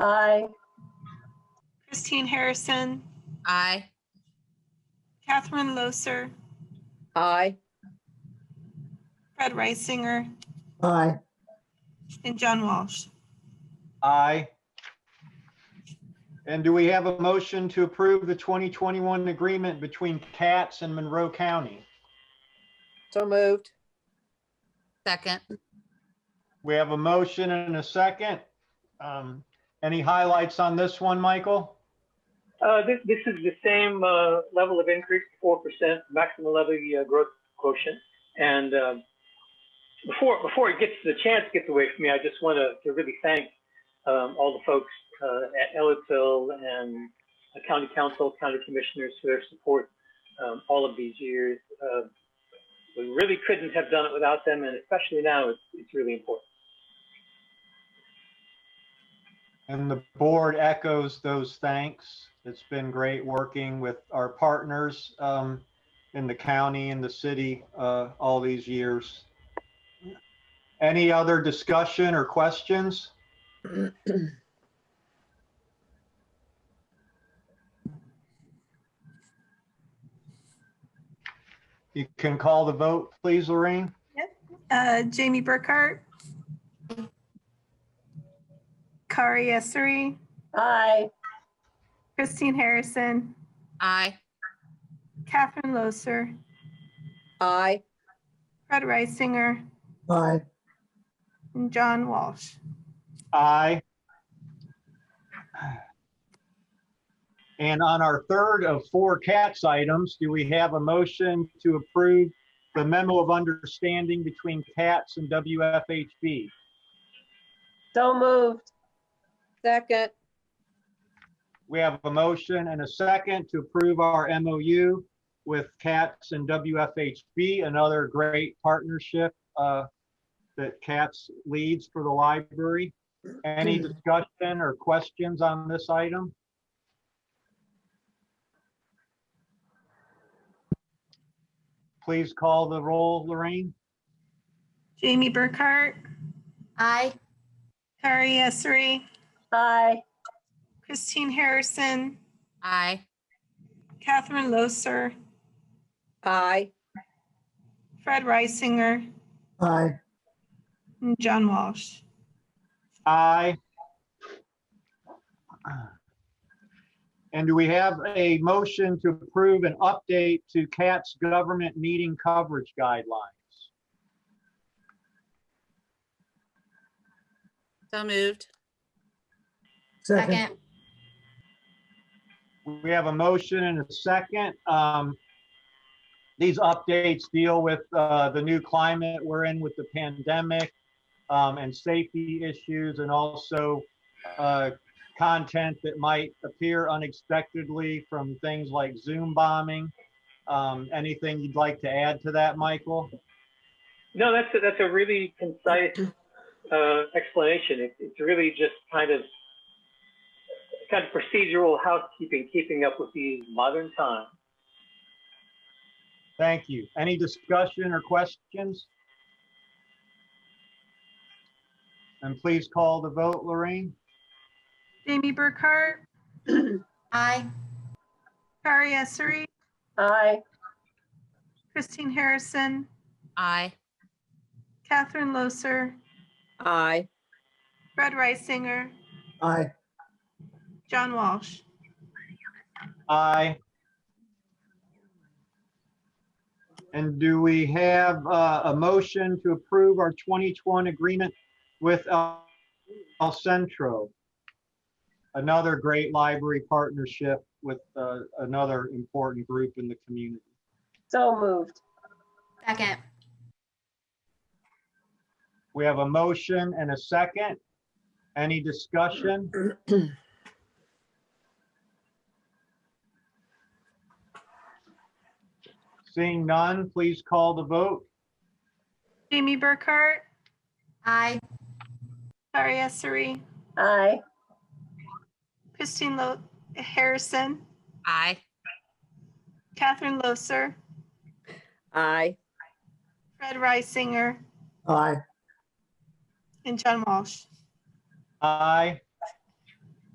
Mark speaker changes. Speaker 1: Aye.
Speaker 2: Christine Harrison,
Speaker 3: Aye.
Speaker 2: Catherine Loser,
Speaker 3: Aye.
Speaker 2: Fred Reisinger,
Speaker 1: Aye.
Speaker 2: and John Walsh.
Speaker 4: Aye. And do we have a motion to approve the 2021 agreement between Katz and Monroe County?
Speaker 5: So moved.
Speaker 3: Second.
Speaker 4: We have a motion and a second. Um, Any highlights on this one, Michael?
Speaker 6: Uh, This this is the same uh, level of increase, 4% maximum levy uh, growth quotient. And um, before before it gets, the chance gets away from me, I just want to to really thank um, all the folks uh, at Ellisville and the county council, county commissioners for their support um, all of these years. Uh, We really couldn't have done it without them, and especially now, it's it's really important.
Speaker 4: And the board echoes those thanks. It's been great working with our partners um, in the county and the city uh, all these years. Any other discussion or questions? You can call the vote, please, Lorraine.
Speaker 2: Uh, Jamie Burkhart. Kari Essery,
Speaker 1: Aye.
Speaker 2: Christine Harrison,
Speaker 3: Aye.
Speaker 2: Catherine Loser,
Speaker 5: Aye.
Speaker 2: Fred Reisinger,
Speaker 1: Aye.
Speaker 2: and John Walsh.
Speaker 4: Aye. And on our third of four CATS items, do we have a motion to approve the memo of understanding between CATS and WFHB?
Speaker 1: So moved.
Speaker 5: Second.
Speaker 4: We have a motion and a second to approve our MOU with CATS and WFHB, another great partnership uh, that CATS leads for the library. Any discussion or questions on this item? Please call the roll, Lorraine.
Speaker 2: Jamie Burkhart,
Speaker 3: Aye.
Speaker 2: Kari Essery,
Speaker 1: Aye.
Speaker 2: Christine Harrison,
Speaker 3: Aye.
Speaker 2: Catherine Loser,
Speaker 5: Aye.
Speaker 2: Fred Reisinger,
Speaker 1: Aye.
Speaker 2: and John Walsh.
Speaker 4: Aye. And do we have a motion to approve an update to CAT's government meeting coverage guidelines?
Speaker 3: So moved. Second.
Speaker 4: We have a motion and a second. Um, These updates deal with uh, the new climate we're in with the pandemic um, and safety issues and also uh, content that might appear unexpectedly from things like Zoom bombing. Um, Anything you'd like to add to that, Michael?
Speaker 6: No, that's a, that's a really concise uh, explanation. It, it's really just kind of kind of procedural housekeeping, keeping up with these modern times.
Speaker 4: Thank you. Any discussion or questions? And please call the vote, Lorraine.
Speaker 2: Jamie Burkhart,
Speaker 3: Aye.
Speaker 2: Kari Essery,
Speaker 1: Aye.
Speaker 2: Christine Harrison,
Speaker 3: Aye.
Speaker 2: Catherine Loser,
Speaker 5: Aye.
Speaker 2: Fred Reisinger,
Speaker 1: Aye.
Speaker 2: John Walsh.
Speaker 4: Aye. And do we have uh, a motion to approve our 2021 agreement with El El Centro? Another great library partnership with uh, another important group in the community.
Speaker 1: So moved.
Speaker 3: Second.
Speaker 4: We have a motion and a second. Any discussion? Seeing none, please call the vote.
Speaker 2: Jamie Burkhart,
Speaker 3: Aye.
Speaker 2: Kari Essery,
Speaker 1: Aye.
Speaker 2: Christine Lo- Harrison,
Speaker 3: Aye.
Speaker 2: Catherine Loser,
Speaker 5: Aye.
Speaker 2: Fred Reisinger,
Speaker 1: Aye.
Speaker 2: and John Walsh.
Speaker 4: Aye.